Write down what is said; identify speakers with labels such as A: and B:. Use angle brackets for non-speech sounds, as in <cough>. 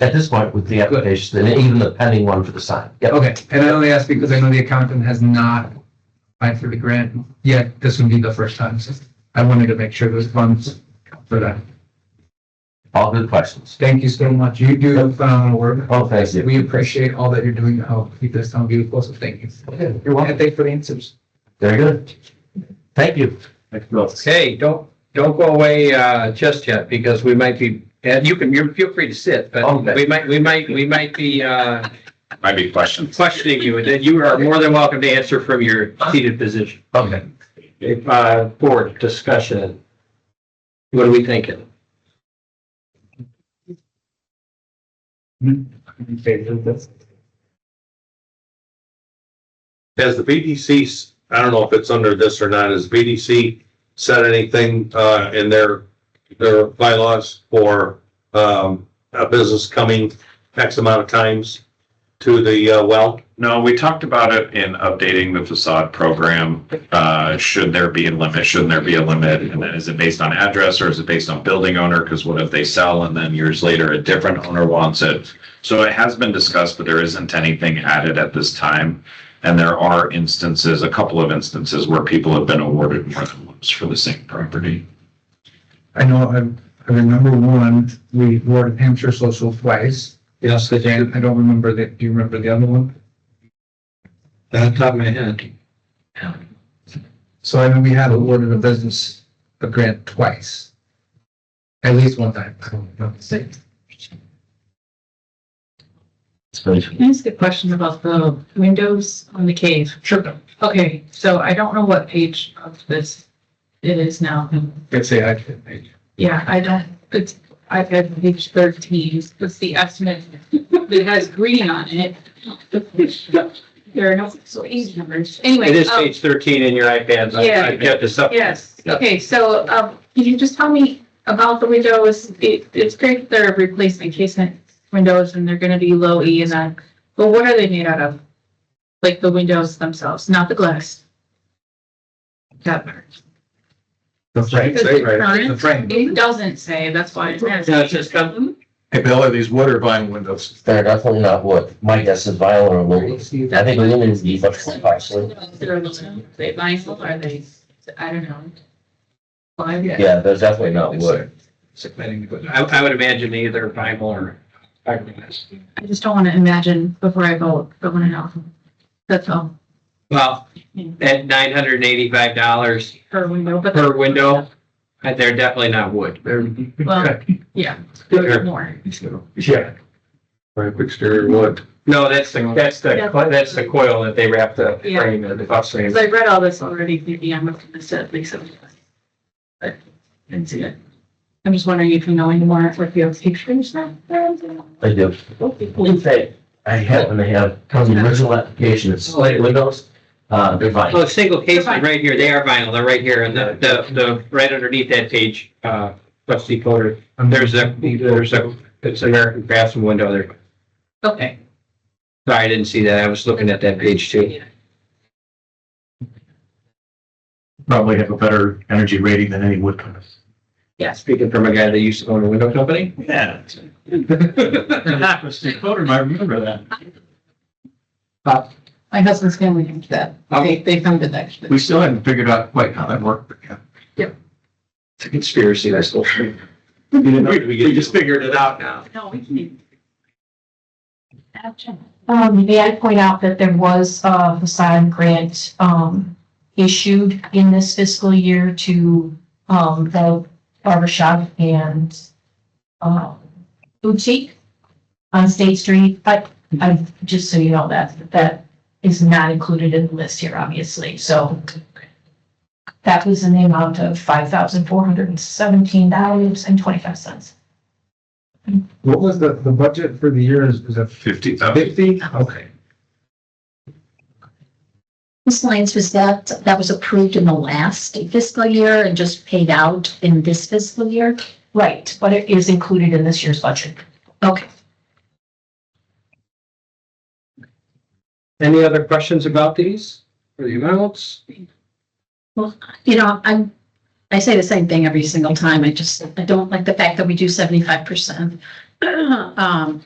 A: at this point with the application, and even the pending one for the sign. Yep.
B: Okay, and I only ask because I know the accountant has not applied for the grant yet. This would be the first time, so I wanted to make sure those funds for that.
A: All good questions.
B: Thank you so much. You do phenomenal work.
A: Oh, thank you.
B: We appreciate all that you're doing to help keep this town beautiful, so thank you.
A: Okay,
B: You're welcome. And thank you for the answers.
A: Very good. Thank you.
C: Hey, don't, don't go away, uh, just yet, because we might be, and you can, you're, feel free to sit, but
A: Okay.
C: we might, we might, we might be, uh,
D: Might be questions.
C: questioning you, and then you are more than welcome to answer from your seated position.
A: Okay.
C: Uh, board discussion. What are we thinking?
B: Mm-hmm.
E: Has the BDC, s- I don't know if it's under this or not, has BDC said anything, uh, in their, their bylaws for, um, a business coming X amount of times to the, uh, well?
D: No, we talked about it in updating the facade program. Uh, should there be a limit? Shouldn't there be a limit? And then is it based on address or is it based on building owner? Because what if they sell and then years later a different owner wants it? So it has been discussed, but there isn't anything added at this time. And there are instances, a couple of instances where people have been awarded more than once for the same property.
B: I know, I, I remember one, we awarded Hampshire Social twice.
C: Yes, the
B: And I don't remember the, do you remember the other one?
C: Off the top of my head.
B: So I know we had awarded a business, a grant twice. At least one time. I don't know.
A: It's very-
F: Can I ask a question about the windows on the cave?
B: Sure.
F: Okay, so I don't know what page of this it is now.
B: Let's say I did. I-
F: Yeah, I don't, it's, I've had page thirteen, it's the estimate that has green on it. There are no, so easy numbers. Anyway.
C: It is
F: um,
C: page thirteen in your iPads. I- I get this up.
F: Yes,
C: Yeah.
F: okay, so, um, can you just tell me about the windows? It, it's great that they're replacing casement windows and they're gonna be low E and that, but what are they made out of? Like the windows themselves, not the glass? That part.
B: The frame,
F: Does it
B: right, the
F: current?
B: frame.
F: It doesn't say, that's why it's
C: Yeah, it's just come-
G: Hey, Bill, are these wood or vinyl windows?
A: They're definitely not wood. My guess is vinyl or aluminum. I think aluminum would be much more costly.
F: They're aluminum, they vinyl, are they, I don't know. Well, yeah.
A: Yeah, they're definitely not wood.
C: I, I would imagine either vinyl or fiberglass.
F: I just don't wanna imagine before I vote, but when I know, that's all,
C: Well, at nine hundred and eighty-five dollars
F: per window, but.
C: per window, uh, they're definitely not wood. They're
F: Well, yeah,
C: Sure.
F: more.
C: Yeah.
E: Right, exterior wood.
C: No, that's the, that's the,
F: Yeah.
C: co- that's the coil that they wrap the
F: Yeah.
C: frame, in, the bus frame.
F: Because I read all this already, maybe I'm up to this at least. I'm- But didn't see it. I'm just wondering if you know any more, if you have pictures now?
A: I do. In fact, I have, and I have, from the original application, it's slate windows, uh, they're vinyl.
C: Oh, single case
F: They're vinyl.
C: right here, they are vinyl, they're right here, and the, the, the, right underneath that page, uh, trustee Coder, there's a, there's a, it's American Craftsman window there.
F: Okay.
C: Sorry, I didn't see that, I was looking at that page too.
G: Probably have a better energy rating than any wood windows.
F: Yes.
C: Speaking from a guy that used to own a window company.
G: Yeah. That was Steve Fodor, I remember that.
F: My husband's family did that. They, they funded that.
G: We still haven't figured out quite how that worked, but yeah.
C: It's a conspiracy, that's the whole thing.
E: We- we just
C: figured it out now.
F: No, we can. Gotcha.
H: Um, may I point out that there was a facade grant, um, issued in this fiscal year to, um, the barbershop and, um, boutique on State Street, but I, just so you know, that, that is not included in the list here, obviously, so. That was in the amount of five thousand four hundred and seventeen dollars and twenty-five cents.
B: What was the, the budget for the year is, is it
D: Fifty thousand.
B: fifty? Okay.
I: Ms. Lyons, was that, that was approved in the last fiscal year and just paid out in this fiscal year?
H: Right, but it is included in this year's budget.
I: Okay.
C: Any other questions about these or the amounts?
I: You know, I'm, I say the same thing every single time. I just, I don't like the fact that we do seventy-five percent. <clears throat> Um,